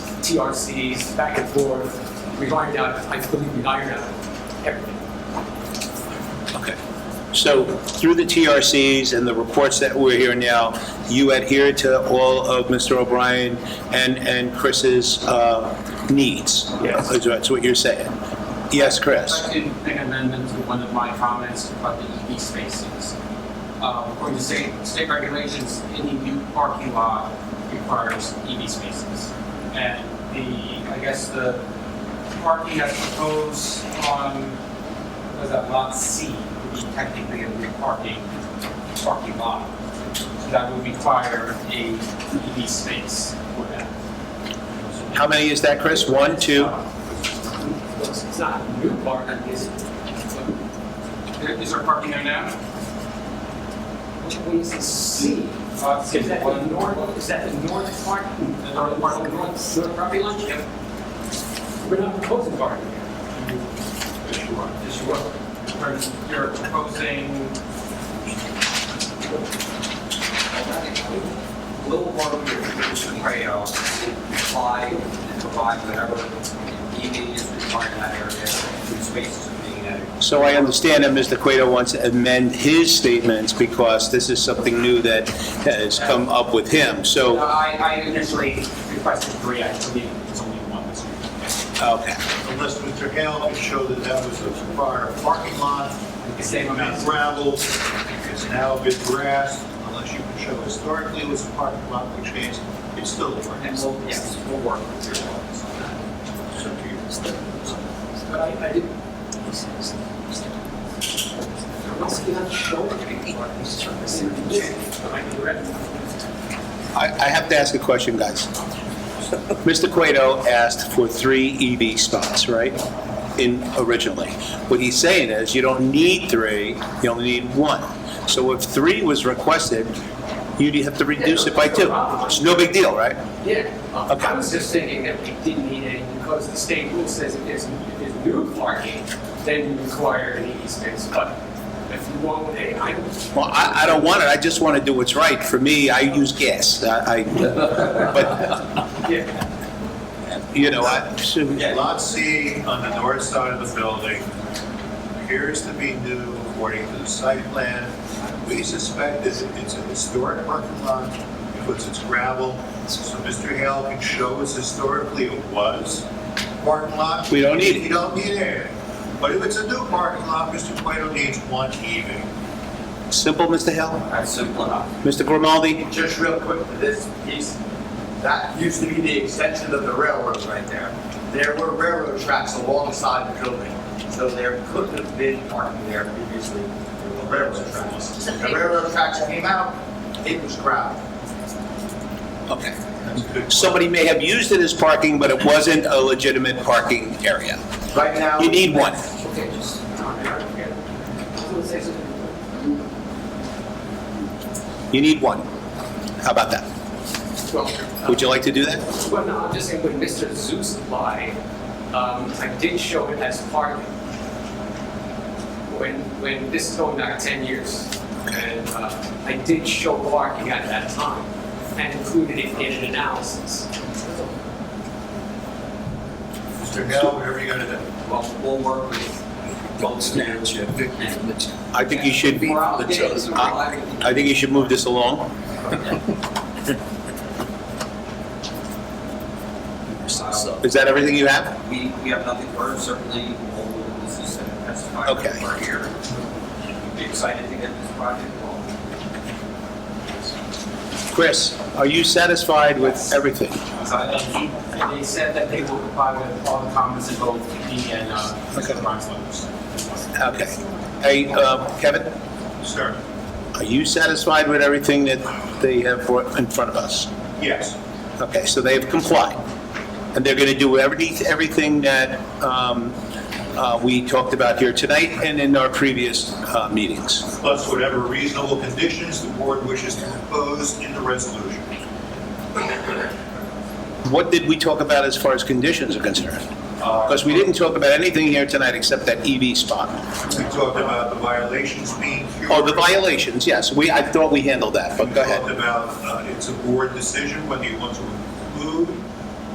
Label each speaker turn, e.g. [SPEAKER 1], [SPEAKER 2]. [SPEAKER 1] TRCs, back and forth. We've ironed out, I believe we've ironed out everything.
[SPEAKER 2] Okay. So through the TRCs and the reports that we're hearing now, you adhere to all of Mr. O'Brien and, and Chris's uh, needs?
[SPEAKER 1] Yes.
[SPEAKER 2] Is That's what you're saying? Yes, Chris?
[SPEAKER 3] I can make an amendment to one of my comments about the EV spaces. Uh, According to state, state regulations, any new parking lot requires EV spaces. And the, I guess the parking that's proposed on, was that lot C, would be technically a new parking, parking lot. So that would require a EV space for that.
[SPEAKER 2] How many is that, Chris? One, two?
[SPEAKER 1] It's not a new part, I guess.
[SPEAKER 3] There- Is there parking there now?
[SPEAKER 1] Which way is the C?
[SPEAKER 3] Lot C,
[SPEAKER 1] Is that
[SPEAKER 3] Uh, one-
[SPEAKER 1] the north, is that the north part? The north part, the north, north property line?
[SPEAKER 3] Yep.
[SPEAKER 1] We're not proposing parking here.
[SPEAKER 3] Yes, you are. Yes, you are. You're proposing
[SPEAKER 4] little more of your traditional rail, apply and provide whatever EV is required in that area, and spaces are being added.
[SPEAKER 2] So I understand that Mr. Cueto wants to amend his statements because this is something new that has come up with him.
[SPEAKER 3] No,
[SPEAKER 2] So,
[SPEAKER 3] I, I initially requested three, I believe it's only one this year.
[SPEAKER 2] okay.
[SPEAKER 5] unless Mr. Hale can show that that was a prior parking lot.
[SPEAKER 3] The same amount.
[SPEAKER 5] It's gravel, it's now been grass, unless you can show historically it was a parking lot, which means it's still a parking
[SPEAKER 3] And
[SPEAKER 5] lot.
[SPEAKER 3] we'll, yes, we'll work with your office on that.
[SPEAKER 5] So do you-
[SPEAKER 1] But I, I did. Must be not showing any part.
[SPEAKER 2] I, I have to ask a question, guys. Mr. Cueto asked for three EV spots, right? In, originally. What he's saying is, you don't need three, you only need one. So if three was requested, you'd have to reduce it by two. It's no big deal, right?
[SPEAKER 1] Yeah,
[SPEAKER 3] Uh,
[SPEAKER 1] I was just thinking that we didn't need any because the state rule says if there's, if there's new parking, then you require an EV space. But if you want, hey, I,
[SPEAKER 2] Well, I, I don't want it, I just want to do what's right. For me, I use gas, I, I- but,
[SPEAKER 1] yeah,
[SPEAKER 2] you know, I, so-
[SPEAKER 5] Lot C on the north side of the building appears to be new according to the site plan. We suspect it's, it's a historic parking lot, because it's gravel. So Mr. Hale can show us historically it was a parking lot.
[SPEAKER 2] We don't need it.
[SPEAKER 5] You don't need it. But if it's a new parking lot, Mr. Cueto needs one even.
[SPEAKER 2] simple, Mr. Hill?
[SPEAKER 4] That's simple enough.
[SPEAKER 2] Mr. Grimaldi?
[SPEAKER 4] Just real quick for this piece, that used to be the extension of the railroad right there. There were railroad tracks alongside the building, so there could have been parking there previously, there were railroad tracks. The railroad tracks came out, it was gravel.
[SPEAKER 2] Okay.
[SPEAKER 5] That's a good point.
[SPEAKER 2] Somebody may have used it as parking, but it wasn't a legitimate parking area.
[SPEAKER 4] Right now.
[SPEAKER 2] You need one.
[SPEAKER 4] Okay, just.
[SPEAKER 2] You need one. How about that?
[SPEAKER 1] well,
[SPEAKER 2] Would you like to do that?
[SPEAKER 1] Well, no, I'm just saying when Mr. Zeus applied, um, I did show it as parking. When, when, this is going back ten years, and, uh, I did show parking at that time and included it in an analysis.
[SPEAKER 5] Mr. Hale, whatever you gotta do.
[SPEAKER 4] Well, we'll work with.
[SPEAKER 2] I think you should,
[SPEAKER 4] We're out there, so we're
[SPEAKER 2] I
[SPEAKER 4] like-
[SPEAKER 2] I think you should move this along.
[SPEAKER 4] So,
[SPEAKER 2] Is that everything you have?
[SPEAKER 4] we, we have nothing for it, certainly, all the witnesses that have testified
[SPEAKER 2] Okay.
[SPEAKER 4] are here. We'd be excited to get this project going.
[SPEAKER 2] Chris, are you satisfied with everything?
[SPEAKER 3] So, and he, and they said that they will comply with all the comments in both the, and, uh,
[SPEAKER 2] Okay.
[SPEAKER 3] Mr. Ryan's letters.
[SPEAKER 2] Okay. Hey, uh, Kevin,
[SPEAKER 5] Sir,
[SPEAKER 2] are you satisfied with everything that they have brought in front of us?
[SPEAKER 5] yes.
[SPEAKER 2] Okay, so they've complied, and they're going to do every- everything that um, uh, we talked about here tonight and in our previous uh, meetings.
[SPEAKER 5] Plus whatever reasonable conditions the board wishes to impose in the resolution.
[SPEAKER 2] What did we talk about as far as conditions are concerned? Because we didn't talk about anything here tonight except that EV spot.
[SPEAKER 5] We talked about the violations being cured.
[SPEAKER 2] Oh, the violations, yes, we, I thought we handled that, but go
[SPEAKER 5] We
[SPEAKER 2] ahead.
[SPEAKER 5] talked about, uh, it's a board decision whether you want to